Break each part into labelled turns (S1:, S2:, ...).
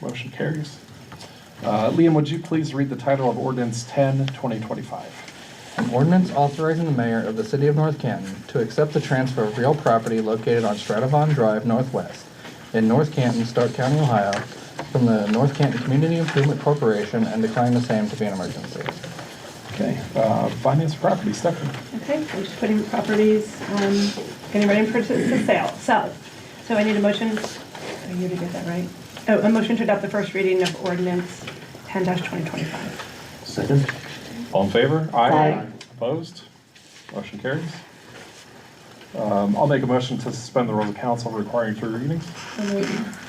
S1: Motion carries. Uh, Liam, would you please read the title of ordinance 10, 2025?
S2: An ordinance authorizing the mayor of the city of North Canton to accept the transfer of real property located on Stratavon Drive Northwest in North Canton, Stark County, Ohio, from the North Canton Community Improvement Corporation and declaring the same to be an emergency.
S1: Okay, uh, finance and property, Stephanie.
S3: Okay, I'm just putting properties, um, getting ready for to sale, sell. So I need a motion, are you to get that right? Oh, a motion to adopt the first reading of ordinance ten twenty twenty-five.
S4: Second?
S1: All in favor?
S3: Aye.
S1: Opposed? Motion carries. Um, I'll make a motion to suspend the rules of council requiring three readings.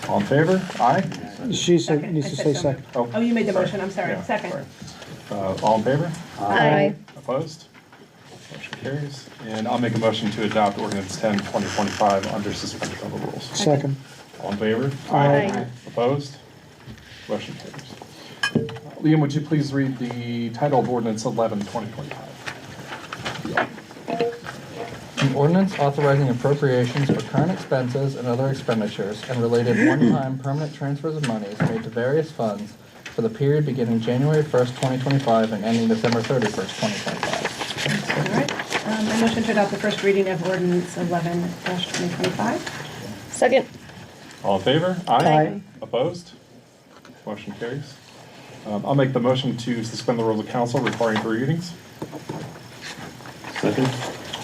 S1: All in favor? Aye.
S5: She said, needs to say second.
S3: Oh, you made the motion, I'm sorry,
S1: Yeah,
S3: second.
S1: sorry. Uh, All in favor?
S6: Aye.
S1: Opposed? Motion carries. And I'll make a motion to adopt ordinance 10, 2025 under suspension of the rules.
S5: Second.
S1: All in favor?
S6: Aye.
S1: Opposed? Motion carries. Liam, would you please read the title of ordinance 11, 2025?
S2: An ordinance authorizing appropriations for current expenses and other expenditures and related one-time permanent transfers of monies made to various funds for the period beginning January 1st, 2025 and ending December 31st, 2025.
S3: All right, um, a motion to adopt the first reading of ordinance eleven twenty twenty-five.
S6: Second.
S1: All in favor?
S6: Aye.
S1: Opposed? Motion carries. Um, I'll make the motion to suspend the rules of council requiring three readings.
S4: Second?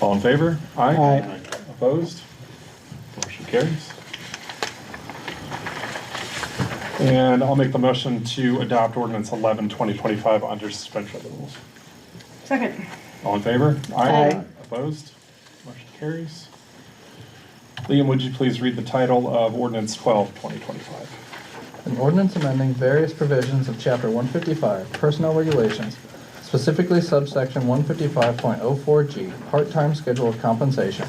S1: All in favor?
S5: Aye.
S1: Opposed? Motion carries. And I'll make the motion to adopt ordinance 11, 2025 under suspension of the rules.
S3: Second,
S1: All in favor?
S6: Aye.
S1: Opposed? Motion carries. Liam, would you please read the title of ordinance 12, 2025?
S2: An ordinance amending various provisions of Chapter 155 Personnel Regulations, specifically subsection 155.04G, Part-Time Schedule of Compensation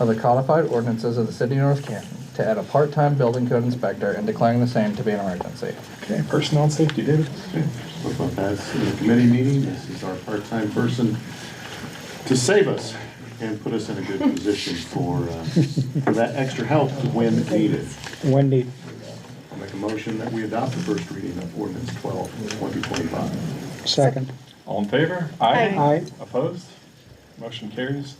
S2: of the codified ordinances of the City of North Canton to add a part-time building code inspector and declaring the same to be an emergency.
S1: Okay, personnel and safety, David.
S4: Spoke about that in the committee meeting. This is our part-time person to save us and put us in a good position for, uh, for that extra help when needed.
S5: Wendy.
S4: I'll make a motion that we adopt the first reading of ordinance 12, 2025.
S5: Second.
S1: All in favor?
S6: Aye.
S5: Aye.
S1: Opposed? Motion carries.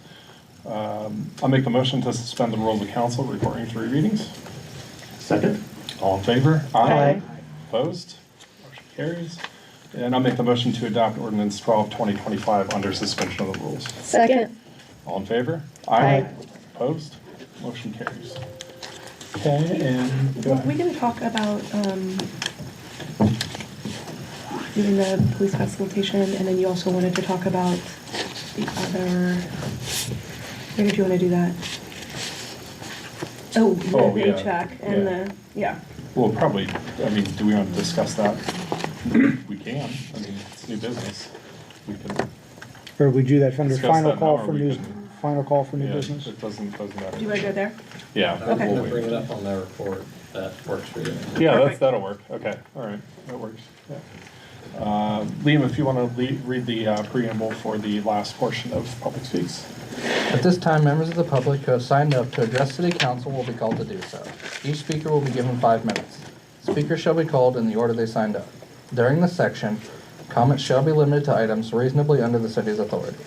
S1: Um, I'll make the motion to suspend the rules of council requiring three readings.
S4: Second?
S1: All in favor?
S6: Aye.
S1: Opposed? Motion carries. And I'll make the motion to adopt ordinance 12, 2025 under suspension of the rules.
S6: Second.
S1: All in favor?
S6: Aye.
S1: Opposed? Motion carries. Okay, and
S3: were we gonna talk about, um, doing the police consultation, and then you also wanted to talk about the other, where did you wanna do that? Oh, the
S1: Oh, yeah,
S3: paycheck and
S1: yeah.
S3: the, yeah,
S1: we'll probably, I mean, do we want to discuss that? We can. I mean, it's new business. We can.
S5: Or we do that under
S1: Discuss
S5: final
S1: that
S5: call
S1: now, or
S5: for
S1: we
S5: new,
S1: can-
S5: final call for new
S1: yeah,
S5: business.
S1: It doesn't, doesn't matter.
S3: do you wanna go there?
S1: Yeah.
S3: Okay.
S1: we'll
S7: I'm gonna
S1: wait.
S7: bring it up on their report, that works for you.
S1: Yeah, that's,
S3: Perfect.
S1: that'll work. Okay, all right, that works. Yeah. Uh, Liam, if you want to read the uh, preamble for the last portion of public speaks.
S2: At this time, members of the public who have signed up to address city council will be called to do so. Each speaker will be given five minutes. Speakers shall be called in the order they signed up. During this section, comments shall be limited to items reasonably under the city's authority.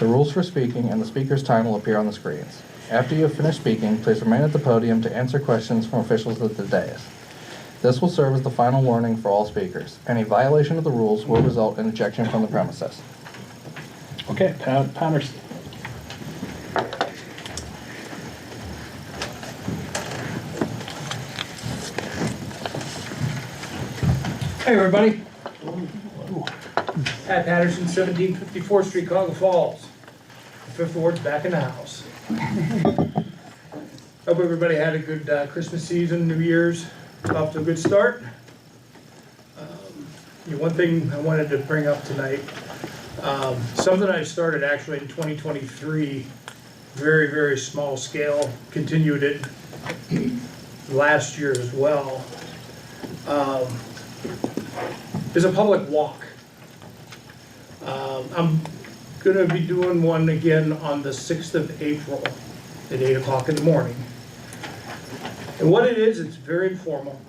S2: The rules for speaking and the speaker's time will appear on the screens. After you have finished speaking, please remain at the podium to answer questions from officials at the dais. This will serve as the final warning for all speakers. Any violation of the rules will result in ejection from the premises.
S1: Okay, Pat, Patterson.
S8: Hey, everybody. Pat Patterson, 1754 Street, Cogga Falls. Fifth Ward's back in the house. Hope everybody had a good uh, Christmas season, New Year's, off to a good start. Um, yeah, One thing I wanted to bring up tonight, um, something I started actually in 2023, very, very small scale, continued it last year as well. Um, is a public walk. Um, I'm gonna be doing one again on the sixth of April at eight o'clock in the morning. And what it is, it's very informal.